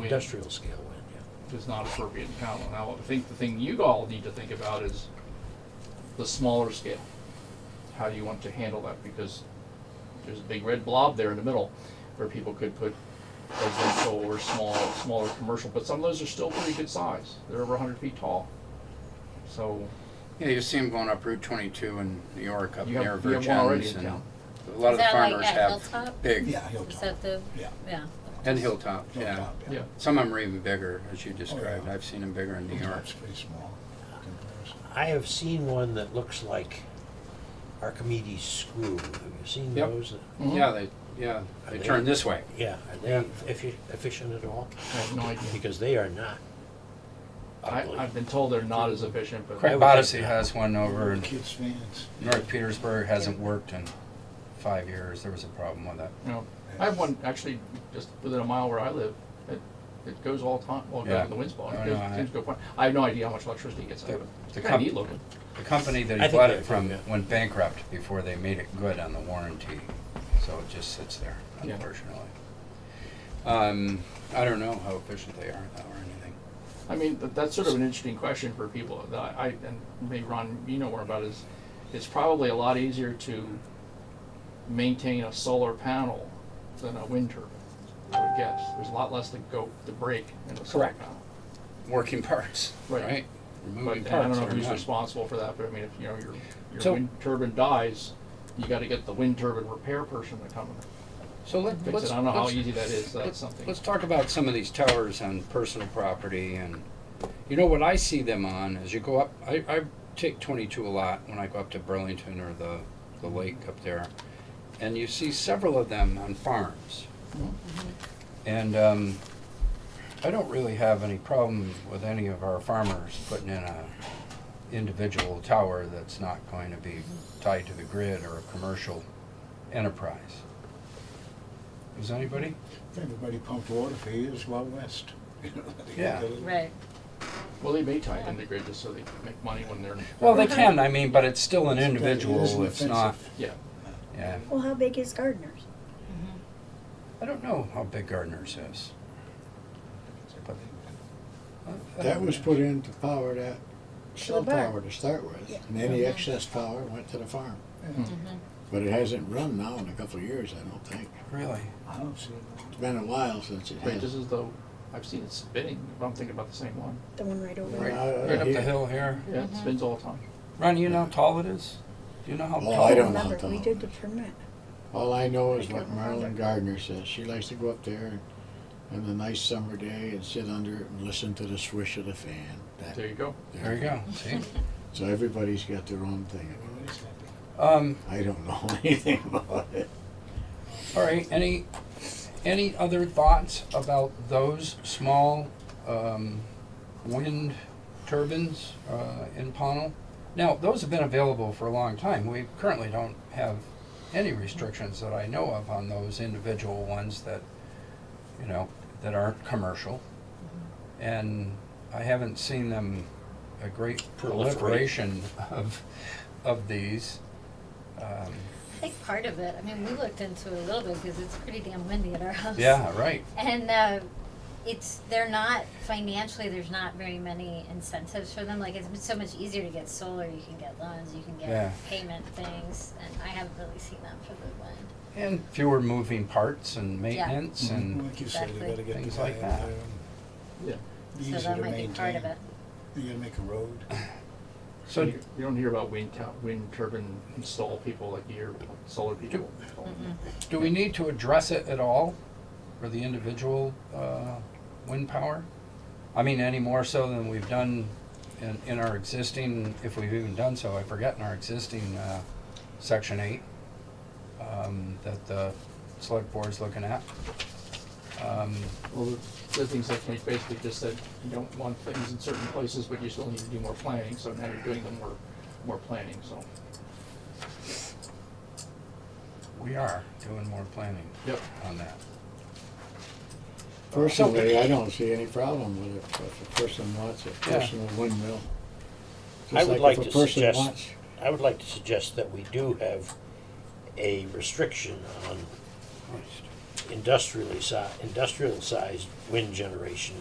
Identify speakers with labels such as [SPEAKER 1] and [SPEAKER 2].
[SPEAKER 1] wind
[SPEAKER 2] industrial scale wind, yeah.
[SPEAKER 1] is not appropriate in Powell. Now, I think the thing you all need to think about is the smaller scale. How do you want to handle that? Because there's a big red blob there in the middle where people could put residential or small, smaller commercial, but some of those are still pretty good size. They're over hundred feet tall. So,
[SPEAKER 3] Yeah, you see them going up Route 22 in New York, up
[SPEAKER 1] You have-
[SPEAKER 3] near
[SPEAKER 1] you have one already
[SPEAKER 3] Virgin's,
[SPEAKER 1] in
[SPEAKER 3] and
[SPEAKER 1] town.
[SPEAKER 3] a lot of
[SPEAKER 4] Is
[SPEAKER 3] the
[SPEAKER 4] that like
[SPEAKER 3] farmers
[SPEAKER 4] at
[SPEAKER 3] have
[SPEAKER 4] Hilltop?
[SPEAKER 3] big,
[SPEAKER 4] Is that the,
[SPEAKER 2] Yeah.
[SPEAKER 4] yeah.
[SPEAKER 3] and Hilltop, yeah.
[SPEAKER 2] Hilltop,
[SPEAKER 1] yeah,
[SPEAKER 3] Some of them are even bigger, as you
[SPEAKER 1] Oh,
[SPEAKER 3] described. I've seen them bigger in New York.
[SPEAKER 5] It's pretty small comparison.
[SPEAKER 2] I have seen one that looks like Archimedes screw. Have you seen
[SPEAKER 3] Yep.
[SPEAKER 2] those?
[SPEAKER 1] Mhm.
[SPEAKER 3] Yeah, they, yeah,
[SPEAKER 2] Are
[SPEAKER 3] they
[SPEAKER 2] they-
[SPEAKER 3] turn this way.
[SPEAKER 2] Yeah, are they effi- efficient at all?
[SPEAKER 1] I have no idea.
[SPEAKER 2] Because they are not
[SPEAKER 1] I,
[SPEAKER 2] ugly.
[SPEAKER 1] I've been told they're not as efficient, but.
[SPEAKER 2] Crap. would think
[SPEAKER 3] Odyssey
[SPEAKER 2] not.
[SPEAKER 3] has one over in
[SPEAKER 5] Kids fans.
[SPEAKER 3] North Petersburg, hasn't worked in five years. There was a problem with it.
[SPEAKER 1] You know, I have one actually just within a mile where I live. It, it goes all time. Well, it goes
[SPEAKER 3] Yeah.
[SPEAKER 1] when the wind's blowing.
[SPEAKER 3] I
[SPEAKER 1] It goes,
[SPEAKER 3] know, I-
[SPEAKER 1] seems to go fine. I have no idea how much electricity gets out of it. It's
[SPEAKER 3] The
[SPEAKER 1] kind of
[SPEAKER 3] com-
[SPEAKER 1] neat looking.
[SPEAKER 3] The company that
[SPEAKER 2] I
[SPEAKER 3] he
[SPEAKER 2] think
[SPEAKER 3] bought
[SPEAKER 2] they're
[SPEAKER 3] it from
[SPEAKER 2] good, yeah.
[SPEAKER 3] went bankrupt before they made it good on the warranty, so it just sits there,
[SPEAKER 1] Yeah.
[SPEAKER 3] unfortunately. Um, I don't know how efficient they are though, or anything.
[SPEAKER 1] I mean, th- that's sort of an interesting question for people. that I I- and maybe Ron, you know more about it, is it's probably a lot easier to maintain a solar panel than a wind turbine. I would guess there's a lot less to go to break in a solar
[SPEAKER 3] Correct.
[SPEAKER 1] panel.
[SPEAKER 3] Working parts,
[SPEAKER 1] Right.
[SPEAKER 3] right?
[SPEAKER 1] But
[SPEAKER 3] Removing
[SPEAKER 1] and I don't
[SPEAKER 3] parts
[SPEAKER 1] know
[SPEAKER 3] or
[SPEAKER 1] who's
[SPEAKER 3] none.
[SPEAKER 1] responsible for that, but I mean, if you know your your
[SPEAKER 3] So-
[SPEAKER 1] wind turbine dies, you got to get the wind turbine repair person to come and
[SPEAKER 3] So let,
[SPEAKER 1] fix
[SPEAKER 3] let's.
[SPEAKER 1] it. I don't know how
[SPEAKER 3] let's-
[SPEAKER 1] easy that is. That's
[SPEAKER 3] let's-
[SPEAKER 1] something.
[SPEAKER 3] Let's talk about some of these towers on personal property and, you know, what I see them on is you go up, I, I take twenty-two a lot when I go up to Burlington or the, the lake up there. And you see several of them on farms. And, um, I don't really have any problem with any of our farmers putting in a individual tower that's not going to be tied to the grid or a commercial enterprise. Does anybody?
[SPEAKER 5] Everybody pumped water for years while west.
[SPEAKER 3] Yeah.
[SPEAKER 4] Right.
[SPEAKER 1] Well, they may tie it into grid just so they make money when they're.
[SPEAKER 3] Well, they can, I mean, but it's still an
[SPEAKER 5] It's- it isn't
[SPEAKER 3] individual, it's not,
[SPEAKER 5] offensive.
[SPEAKER 1] Yeah,
[SPEAKER 3] yeah.
[SPEAKER 6] Well, how big is Gardner's?
[SPEAKER 3] I don't know how big Gardner's is. Uh, I
[SPEAKER 7] That
[SPEAKER 3] don't
[SPEAKER 7] was
[SPEAKER 3] know.
[SPEAKER 7] put in to power that cell
[SPEAKER 6] bar.
[SPEAKER 7] tower to start with,
[SPEAKER 6] Yeah. Mm-hmm.
[SPEAKER 7] and any excess power went to the farm. But it hasn't run now in a couple of years, I don't think.
[SPEAKER 3] Really?
[SPEAKER 5] I don't see
[SPEAKER 7] It's been a while since it
[SPEAKER 1] wait, this
[SPEAKER 7] has.
[SPEAKER 1] is the, I've seen it spinning, but I'm thinking about the same one.
[SPEAKER 6] The one right over
[SPEAKER 7] Right
[SPEAKER 6] there?
[SPEAKER 7] out
[SPEAKER 3] Right
[SPEAKER 7] of
[SPEAKER 3] up the
[SPEAKER 7] here.
[SPEAKER 3] hill here.
[SPEAKER 1] Yeah, it spins all the time.
[SPEAKER 3] Ron, you know how tall it is? Do you know how
[SPEAKER 7] Oh,
[SPEAKER 3] tall?
[SPEAKER 7] I don't know.
[SPEAKER 6] Remember,
[SPEAKER 7] Not the
[SPEAKER 6] we
[SPEAKER 7] one.
[SPEAKER 6] did the permit.
[SPEAKER 7] All I know is
[SPEAKER 6] I
[SPEAKER 7] what
[SPEAKER 6] don't
[SPEAKER 7] Marilyn
[SPEAKER 6] remember.
[SPEAKER 7] Gardner says. She likes to go up there and have a nice summer day and sit under it and listen to the swish of the fan. That-
[SPEAKER 1] There you go.
[SPEAKER 3] There you go, see?
[SPEAKER 7] So everybody's got their own thing.
[SPEAKER 5] that.
[SPEAKER 3] Um,
[SPEAKER 7] I don't know anything about it.
[SPEAKER 3] all right, any, any other thoughts about those small, um, wind turbines, uh, in Pownell? Now, those have been available for a long time. We currently don't have any restrictions that I know of on those individual ones that, you know, that aren't commercial. And I haven't seen them, a great
[SPEAKER 2] Proliferate.
[SPEAKER 3] proliferation of, of these. Um,
[SPEAKER 4] I think part of it, I mean, we looked into it a little bit because it's pretty damn windy at our house.
[SPEAKER 3] Yeah, right.
[SPEAKER 4] And uh, it's, they're not, financially, there's not very many incentives for them. Like, it's so much easier to get solar. You can get loans, you can
[SPEAKER 3] Yeah.
[SPEAKER 4] get payment things. And I haven't really seen that for the wind.
[SPEAKER 3] And fewer moving parts and maintenance and,
[SPEAKER 5] Like you said, you
[SPEAKER 4] Exactly.
[SPEAKER 5] gotta get the
[SPEAKER 3] Things
[SPEAKER 5] guy
[SPEAKER 3] like
[SPEAKER 5] out
[SPEAKER 3] that.
[SPEAKER 5] there.
[SPEAKER 1] Yeah.
[SPEAKER 5] and be
[SPEAKER 4] So
[SPEAKER 5] easy
[SPEAKER 4] that
[SPEAKER 5] to
[SPEAKER 4] might be part of
[SPEAKER 5] maintain.
[SPEAKER 4] it.
[SPEAKER 5] You gotta make a road.
[SPEAKER 3] so,
[SPEAKER 1] You you don't hear about wind tow- wind turbine install people like you hear about solar people. Mm-hmm.
[SPEAKER 3] do we need to address it at all for the individual, uh, wind power? I mean, any more so than we've done in, in our existing, if we've even done so, I forget, in our existing, uh, section eight, um, that the select board's looking at. Um,
[SPEAKER 1] Well, the the things that we basically just said, you don't want things in certain places, but you still need to do more planning, so now you're doing the more, more planning, so.
[SPEAKER 3] we are doing more planning
[SPEAKER 1] Yep.
[SPEAKER 3] on that.
[SPEAKER 7] Personally, I don't see any problem with it, but if a person wants a
[SPEAKER 3] Yeah.
[SPEAKER 7] personal windmill. just
[SPEAKER 2] I would
[SPEAKER 7] if
[SPEAKER 2] like
[SPEAKER 7] a
[SPEAKER 2] to
[SPEAKER 7] person
[SPEAKER 2] suggest-
[SPEAKER 7] wants-
[SPEAKER 2] I would like to suggest that we do have a restriction on industrially si- industrial sized wind generation